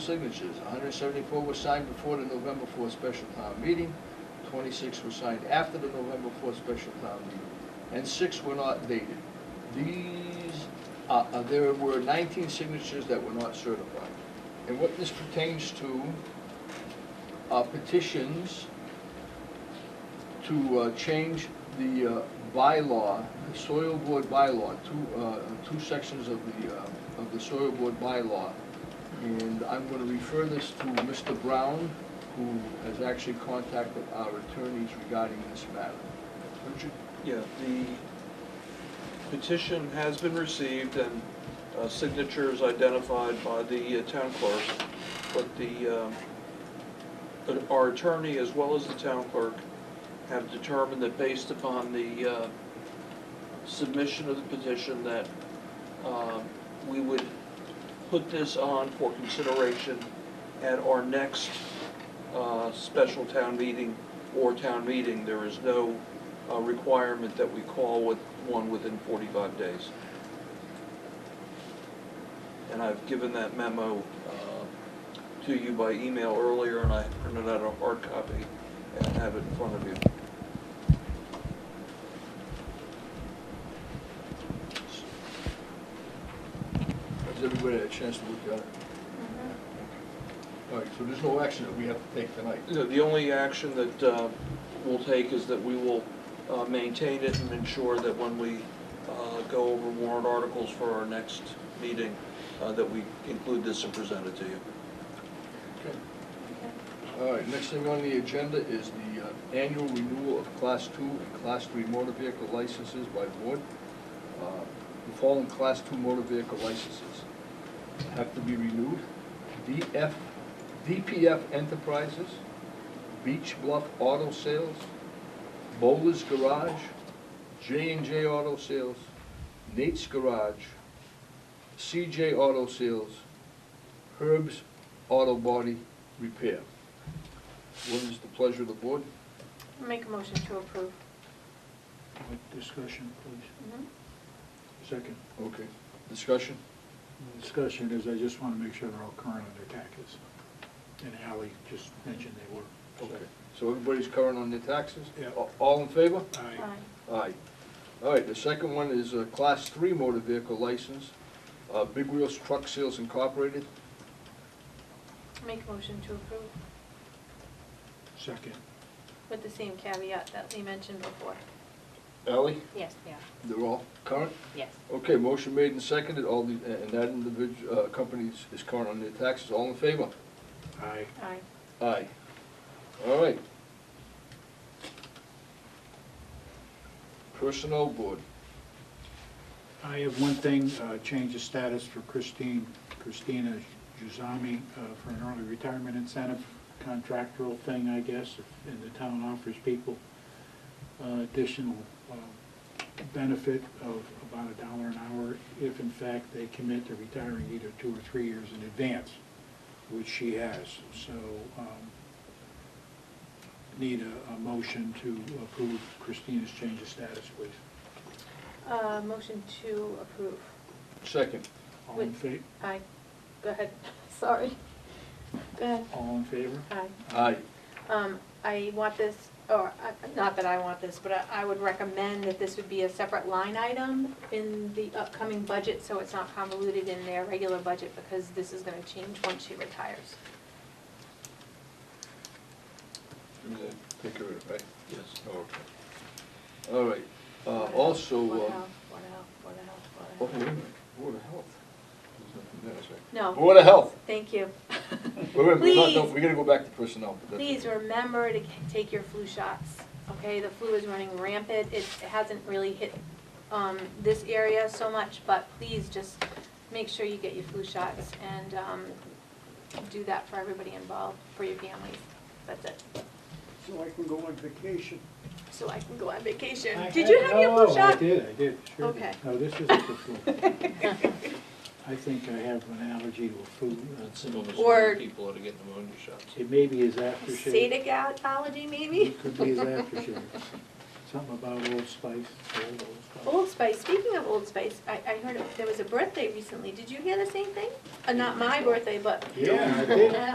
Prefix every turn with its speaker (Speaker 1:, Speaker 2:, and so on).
Speaker 1: signatures. 174 were signed before the November 4th special town meeting, 26 were signed after the November 4th special town meeting, and six were not dated. These, uh, uh, there were 19 signatures that were not certified. And what this pertains to are petitions to uh, change the uh, bylaw, the soil board bylaw, two, uh, two sections of the, uh, of the soil board bylaw. And I'm gonna refer this to Mr. Brown, who has actually contacted our attorneys regarding this matter. Richard?
Speaker 2: Yeah, the petition has been received and uh, signatures identified by the uh, town clerk, but the, um, but our attorney as well as the town clerk have determined that based upon the uh, submission of the petition that um, we would put this on for consideration at our next uh, special town meeting or town meeting. There is no uh, requirement that we call with, one within 45 days. And I've given that memo uh, to you by email earlier, and I printed out a hard copy and have it in front of you.
Speaker 1: Has everybody had a chance to look at it? All right, so there's no action that we have to take tonight.
Speaker 2: You know, The only action that uh, we'll take is that we will uh, maintain it and ensure that when we uh, go over warrant articles for our next meeting, uh, that we include this and present it to you.
Speaker 1: Okay. All right, next thing on the agenda is the uh, annual renewal of Class Two and Class Three motor vehicle licenses by board. Uh, The following Class Two motor vehicle licenses have to be renewed. DF, DPF Enterprises, Beach Bluff Auto Sales, Bowler's Garage, J and J Auto Sales, Nate's Garage, CJ Auto Sales, Herb's Auto Body Repair. What is the pleasure of the board?
Speaker 3: Make a motion to approve.
Speaker 4: Like Discussion, please. Second.
Speaker 1: Okay. Discussion?
Speaker 4: The Discussion is, I just want to make sure they're all current on their taxes. And Ally just mentioned they were.
Speaker 1: Okay. So everybody's current on their taxes?
Speaker 4: Yeah.
Speaker 1: A- All in favor?
Speaker 4: Aye.
Speaker 1: Aye. All right, the second one is a Class 3 motor vehicle license, uh, Big Wheels Truck Sales Incorporated.
Speaker 3: Make a motion to approve
Speaker 4: Second.
Speaker 3: with the same caveat that we mentioned before.
Speaker 1: Ally,
Speaker 3: Yes, yeah.
Speaker 1: they're all current?
Speaker 3: Yes.
Speaker 1: Okay, motion made and seconded, all the, and that individual, company is- is current on their taxes, all in favor?
Speaker 4: Aye.
Speaker 3: Aye.
Speaker 1: Aye. All right. Personnel Board.
Speaker 4: I have one thing, uh, change of status for Christine, Christina Juzami uh, for an early retirement incentive contractual thing, I guess, if- and the town offers people uh, additional uh, benefit of about a dollar an hour if in fact they commit to retiring either two or three years in advance, which she has. So um, need a- a motion to approve Christina's change of status, please.
Speaker 3: Uh, motion to approve.
Speaker 1: Second.
Speaker 4: All in
Speaker 3: Wait.
Speaker 4: favor?
Speaker 3: Aye. Go ahead, sorry. Go ahead.
Speaker 4: All in favor?
Speaker 3: Aye.
Speaker 1: Aye.
Speaker 3: Um, I want this, or, uh, not that I want this, but I, I would recommend that this would be a separate line item in the upcoming budget, so it's not convoluted in their regular budget, because this is gonna change once she retires.
Speaker 1: Take care of it, right?
Speaker 2: Yes.
Speaker 1: Okay. All right, uh, also, uh.
Speaker 3: Board of Health, Board of Health, Board
Speaker 1: oh, wait
Speaker 3: of Health, Board of Health.
Speaker 1: a minute, Board of Health. There's nothing there, that's right.
Speaker 3: No,
Speaker 1: Board of Health.
Speaker 3: thank you.
Speaker 1: Wait, wait, we're not,
Speaker 3: Please.
Speaker 1: done. we gotta go back to personnel. but that's-
Speaker 3: Please remember to c- take your flu shots, okay? The flu is running rampant. It hasn't really hit um, this area so much, but please just make sure you get your flu shots and um, do that for everybody involved, for your families. That's it.
Speaker 5: So I can go on vacation.
Speaker 3: So I can go on vacation.
Speaker 4: I-
Speaker 3: Did
Speaker 4: I-
Speaker 3: you have your
Speaker 4: no,
Speaker 3: flu
Speaker 4: I
Speaker 3: shot?
Speaker 4: did, I did, sure did.
Speaker 3: Okay.
Speaker 4: No, this isn't the flu. I think I have an allergy to a food. uh,
Speaker 3: Or-
Speaker 2: people ought to get pneumonia shots.
Speaker 4: It maybe is aftershave.
Speaker 3: Sadic al- allergy, maybe?
Speaker 4: It could be his aftershave. Something about Old Spice, old Old
Speaker 3: Old Spice, speaking of Old Spice, I, I heard there was a birthday recently. Did you hear the same thing? Uh, not my birthday, but
Speaker 4: Yeah, I did.